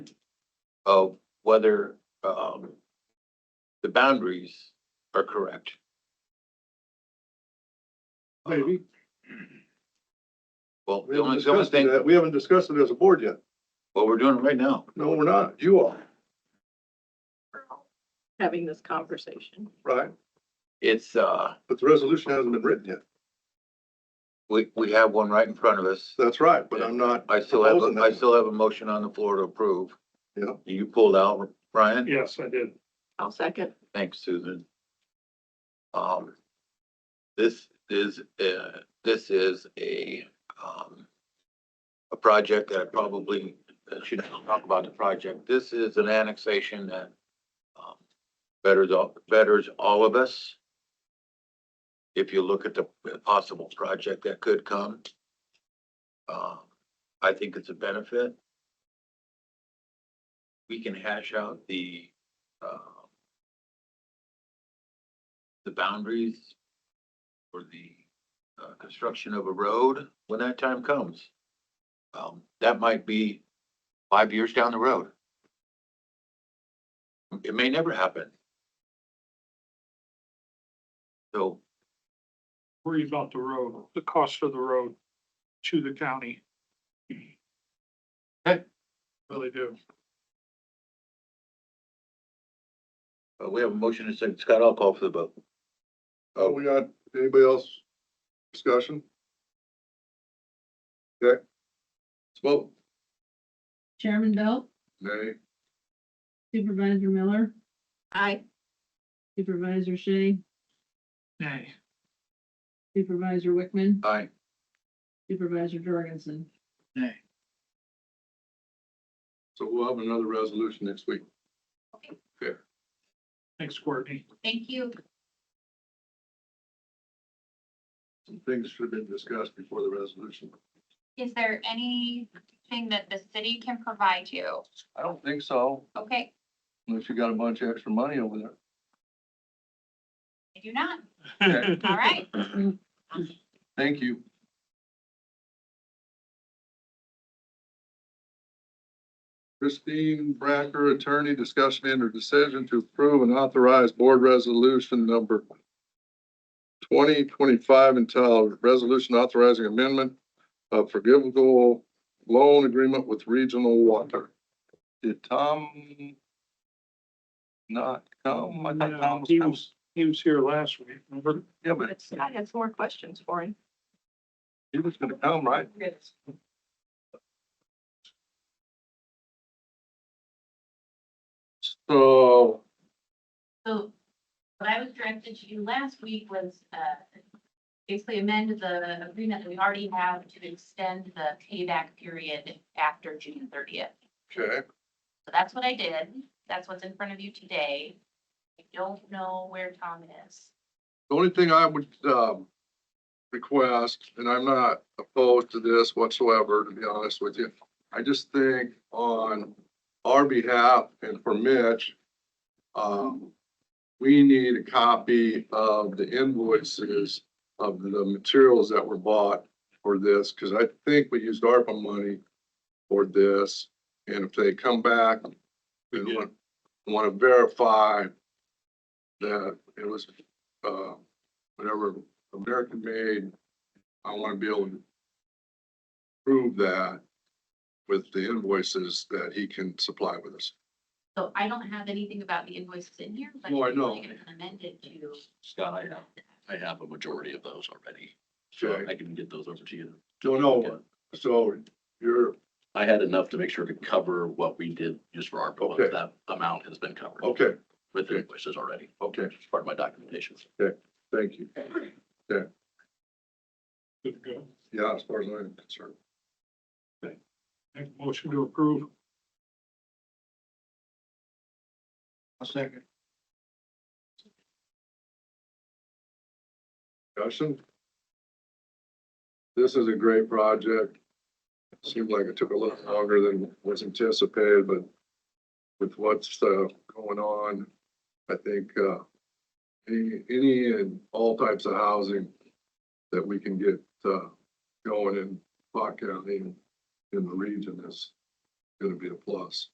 of whether, um, the boundaries are correct. Maybe. Well, We the haven't only, the only discussed thing, that. We haven't discussed it as a board yet. what we're doing right now, No, we're not. You are, having this conversation. right? it's, uh, But the resolution hasn't been written yet. we, we have one right in front of us. That's right, but I'm not. I still have, proposing a- I that. still have a motion on the floor to approve. Yeah. You pulled out, Brian? Yes, I did. I'll second. Thanks, Susan. Um, this is, uh, this is a, um, a project that I probably should talk about the project. This is an annexation that, um, betters all, betters all of us. If you look at the possible project that could come, uh, I think it's a benefit. We can hash out the, uh, the boundaries for the uh, construction of a road when that time comes. Um, That might be five years down the road. It may never happen. So Worry about the road, the cost of the road to the county. Okay. Really do. uh, we have a motion to second. Scott, I'll call for the vote. Uh, we got, anybody else discussion? Okay. Let's vote. Chairman Belt, Nay. Supervisor Miller, I, Supervisor Shea, Nay. Supervisor Wickman, Aye. Supervisor Jorgensen. Nay. So we'll have another resolution next week. Thanks, Courtney. thank you. Some things should have been discussed before the resolution. Is there anything that the city can provide you? I don't think so, Okay, unless you got a bunch of extra money over there. I do not. Okay. All right. Thank you. Christine Bracker, attorney, discussion and or decision to approve and authorize board resolution number twenty twenty-five entitled Resolution Authorizing Amendment of Forgivable Loan Agreement with Regional Water. Did Tom not come? I thought Tom No, Uh, He was- was, he was here last week, remember? Yeah, but But Scott had some more questions for him. he was gonna come, right? So So what I was directed to do last week was uh, basically amend the agreement that we already have to extend the payback period after June thirtieth. Okay, So that's what I did. That's what's in front of you today. I don't know where Tom is. the only thing I would, um, request, and I'm not opposed to this whatsoever, to be honest with you. I just think on our behalf and for Mitch, um, we need a copy of the invoices of the materials that were bought for this, because I think we used ARPA money for this. And if they come back and want, want to verify that it was uh, whatever American made, I want to be able to prove that with the invoices that he can supply with us. So I don't have anything about the invoices in here, but. No, I know. I'm gonna amend it to. Scott, I have, I have a majority of those already, so Okay, I can get those over to you. don't know, so you're, I had enough to make sure to cover what we did just for our, Okay. but that amount has been covered okay, with okay. invoices already, okay, It's part of my documentation. thank you. Good to go. Yeah, as far as I'm concerned. Make a Motion to approve. A second. Discussion? This is a great project. Seemed like it took a little longer than was anticipated, but with what's uh, going on, I think uh, any, any and all types of housing that we can get uh, going in Pot County and in the region is going to be a plus.